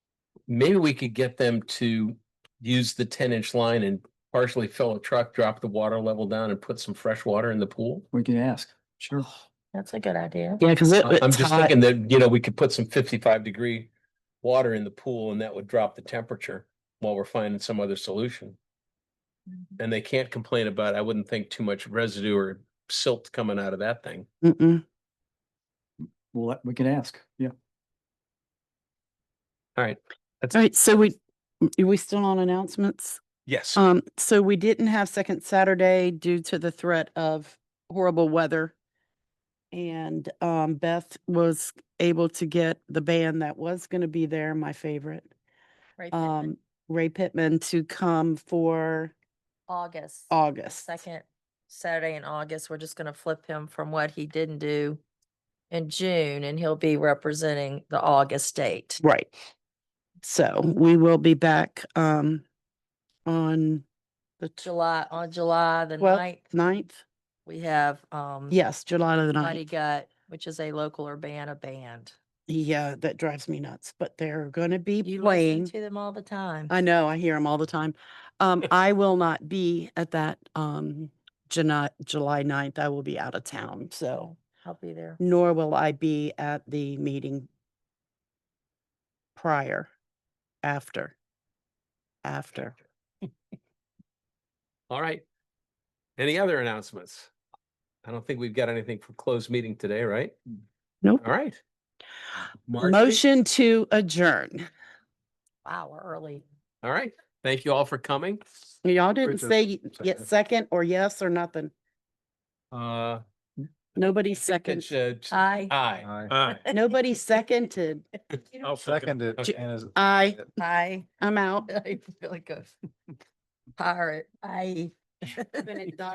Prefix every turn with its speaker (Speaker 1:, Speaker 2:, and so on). Speaker 1: maybe we could get them to use the ten inch line and partially fill a truck, drop the water level down and put some fresh water in the pool.
Speaker 2: We can ask. Sure.
Speaker 3: That's a good idea.
Speaker 4: Yeah, because it,
Speaker 1: I- I'm
Speaker 4: it's
Speaker 1: just
Speaker 4: hot.
Speaker 1: thinking that, you know, we could put some fifty-five degree water in the pool and that would drop the temperature while we're finding some other solution. And they can't complain about, I wouldn't think too much residue or silt coming out of that thing.
Speaker 4: Mm-mm.
Speaker 2: We'll, let- we can ask. Yeah.
Speaker 4: All right, so we, are we still on announcements?
Speaker 1: Yes.
Speaker 4: Um, so we didn't have second Saturday due to the threat of horrible weather. And, um, Beth was able to get the band that was gonna be there, my favorite,
Speaker 3: Right.
Speaker 4: um, Ray Pittman to come for
Speaker 3: August. the
Speaker 4: August.
Speaker 3: Second Saturday in August, we're just gonna flip him from what he didn't do in June and he'll be representing the August date.
Speaker 4: Right. So we will be back, um, on the tw-
Speaker 3: July, on July the
Speaker 4: Well,
Speaker 3: ninth,
Speaker 4: ninth.
Speaker 3: we have, um.
Speaker 4: Yes, July the
Speaker 3: Mighty
Speaker 4: ninth.
Speaker 3: Gut, which is a local Urbana band.
Speaker 4: Yeah, that drives me nuts, but they're gonna be
Speaker 3: You
Speaker 4: playing.
Speaker 3: listen to them all the time.
Speaker 4: I know, I hear them all the time. Um, I will not be at that, um, July, July ninth. I will be out of town, so
Speaker 3: I'll be there.
Speaker 4: nor will I be at the meeting prior, after, after.
Speaker 1: All right. Any other announcements? I don't think we've got anything for closed meeting today, right?
Speaker 4: Nope.
Speaker 1: All right. Marcy?
Speaker 4: Motion to adjourn.
Speaker 3: Wow, we're early.
Speaker 1: All right. Thank you all for coming.
Speaker 4: Y'all didn't
Speaker 1: Richard,
Speaker 4: say y- yet
Speaker 1: second.
Speaker 4: second or yes or nothing.
Speaker 1: Uh,
Speaker 4: Nobody
Speaker 1: second,
Speaker 4: second,
Speaker 1: aye.
Speaker 3: Hi.
Speaker 1: Aye.
Speaker 4: nobody seconded.
Speaker 5: I'll second it.
Speaker 1: Okay.
Speaker 5: and as-
Speaker 4: I,
Speaker 3: Hi.
Speaker 4: I'm out.
Speaker 3: I feel like a pirate. Aye.